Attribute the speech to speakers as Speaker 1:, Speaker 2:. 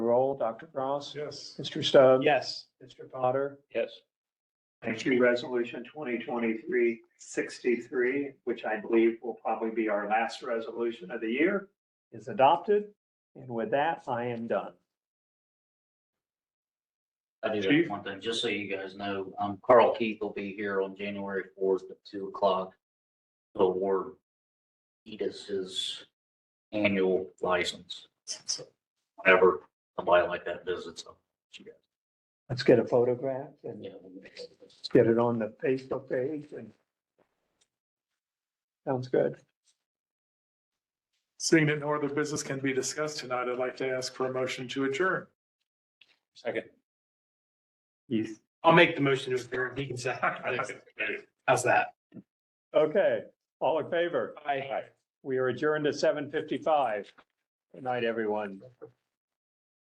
Speaker 1: roll. Dr. Cross?
Speaker 2: Yes.
Speaker 1: Mr. Stubbs?
Speaker 3: Yes.
Speaker 1: Mr. Potter?
Speaker 3: Yes.
Speaker 4: Thank you. Resolution 2023 63, which I believe will probably be our last resolution of the year.
Speaker 1: Is adopted. And with that, I am done.
Speaker 5: I do
Speaker 2: Chief?
Speaker 5: have one thing, just so you guys know, um, Carl Keith will be here on January fourth at two o'clock. to award Edis's annual license. Whenever somebody like that visits. I'll let you guys
Speaker 1: Let's get a photograph and
Speaker 5: know.
Speaker 1: get it on the Facebook page and sounds good.
Speaker 2: Seeing that no other business can be discussed tonight, I'd like to ask for a motion to adjourn.
Speaker 3: Second.
Speaker 1: Yes.
Speaker 3: I'll make the motion to adjourn. He can second. How's that?
Speaker 1: Okay, all in favor?
Speaker 3: Aye.
Speaker 1: We are adjourned at seven fifty-five. Good night, everyone.